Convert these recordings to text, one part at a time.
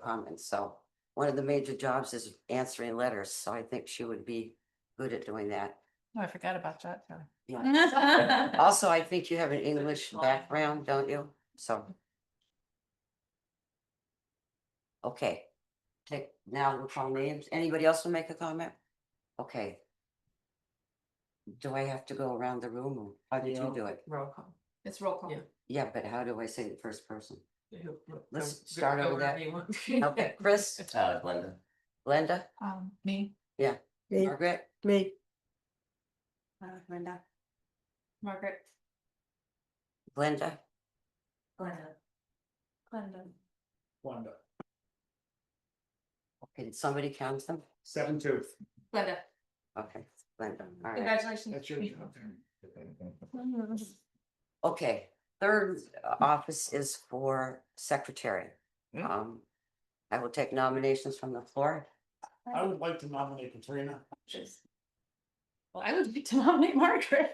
comments, Um, so. One of the major jobs is answering letters, so I think she would be good at doing that. Oh, I forgot about that. Kelly. Yeah. Also, I think you have an English background, don't you? So. Okay, take, now we'll call names. Anybody else will make a comment? Okay. Do I have to go around the room or how did you No. do it? Roll call. It's roll call. Yeah. Yeah, but how do I say the first person? You- you- Let's go- start go over that. wherever you want. Okay, Chris, Uh, Glenda. Linda, Um, me, Me, Margaret, me, Uh, Linda. Margaret. Glenda, Glenda. Glenda. Wanda, can somebody count them? seven tooth, Glenda. Okay, Glenda, all right. Congratulations. that's your job. Okay, third office is for secretary. Mm. Hmm. Um, I will take nominations from the floor. I would like to nominate Katrina. Well, I would be to nominate Margaret.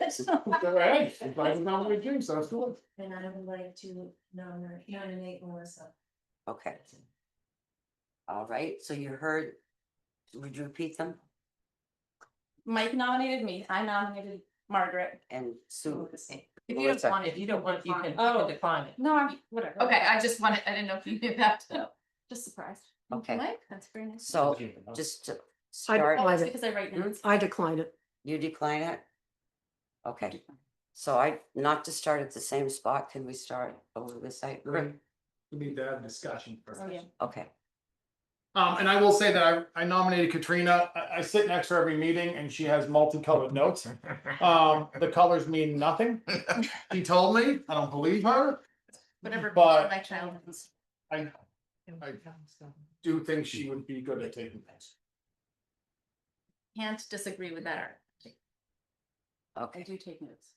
Go ahead, if I can nominate you, so it's good. And I would like to nominate, nominate Melissa. Okay. All right, so you heard, would you repeat them? Mike nominated me. I nominated Margaret. And Sue, If you don't Melissa. want it, you don't want, it, you can you Oh. can decline it. No, I'm, whatever. Okay, I just wanted, I didn't know if you knew that. Just surprised. Thank you, Okay. Mike, that's very nice. so just to start, Oh, it's Private. Because I write Hmm? notes. I decline it. you decline it? Okay, so I, not to start at the same spot, can we start over the site? We need to have a discussion first. Oh, yeah. Okay, Um, and I will say that I, I nominated Katrina. I, I sit next to her every meeting and she has multicolored notes. Um, the colors mean nothing. She told me, I don't believe her. Whatever. But- My child. is. I do think she would be good at taking notes. Can't disagree with that. Art. I okay, do take notes.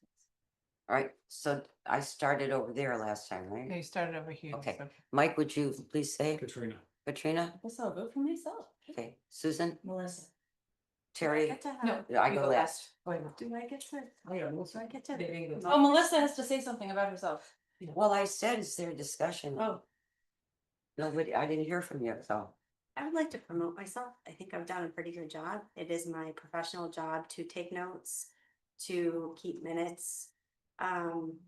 all right, so I started over there last time, right? You started over here. Okay. Mike, would you please say, Katrina. Katrina? I guess I'll vote for myself. Okay, Susan, Melissa. Terry, No. Yeah, I Uh, you go last. Do I get to, Oh, yeah, do I Melissa. get to? There you go. Oh, Melissa has to say something about herself. Well, I said it's their discussion. Oh. Nobody, I didn't hear from you, so. I would like to promote myself. I think I've done a pretty good job. It is my professional job to take notes, to keep minutes. Um,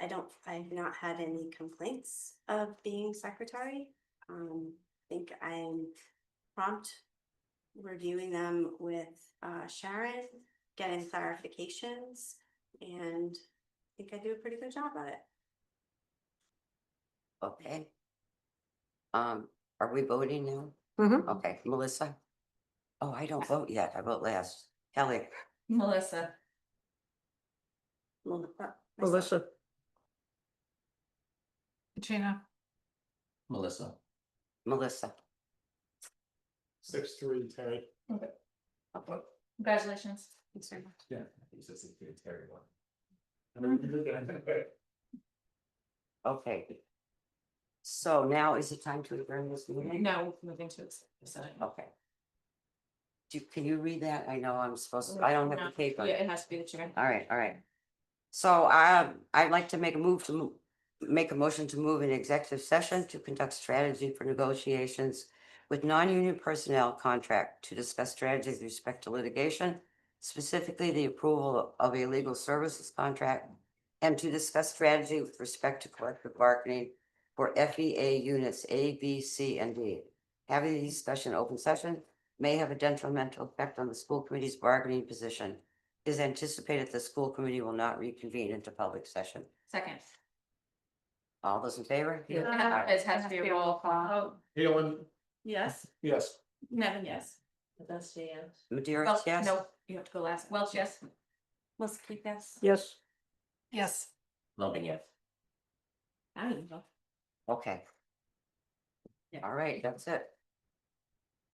I don't, I've not had any complaints of being secretary. Um, I think I'm prompt reviewing them with uh, Sharon, getting clarifications, and I think I do a pretty good job at it. Okay. Um, are we voting now? Mhm. Okay, Melissa? Oh, I don't vote yet. I vote last. Kelly, Melissa. Mel- uh, myself. Melissa, Katrina. Melissa. Melissa. Six, three, Terry. Congratulations. Thanks very much. Yeah. He's just a good Terry one. Okay. So now is the time to adjourn this meeting? Now moving to the side. Okay. Do, can you read that? I know I'm supposed, to. I don't have the paper. Yeah, it has to be the chair. All right, all right. So I, I'd like to make a move to move, make a motion to move an executive session to conduct strategy for negotiations with non-union personnel contract to discuss strategies with respect to litigation, specifically the approval of a legal services contract, and to discuss strategy with respect to collective bargaining for FEA units A, B, C, and D. Having a discussion in open session may have a detrimental effect on the school committee's bargaining position is anticipated the school committee will not reconvene into public session. Second. All those in favor? Uh, It has to be a roll call. Oh, Helen, yes. yes. Nevin, yes. That's the end. Madeira, Welch, yes? No, you have to go last. Welch, yes. Melissa Keith, yes? yes. Yes. Loving yes. I don't know. Okay. Yeah. All right, that's it.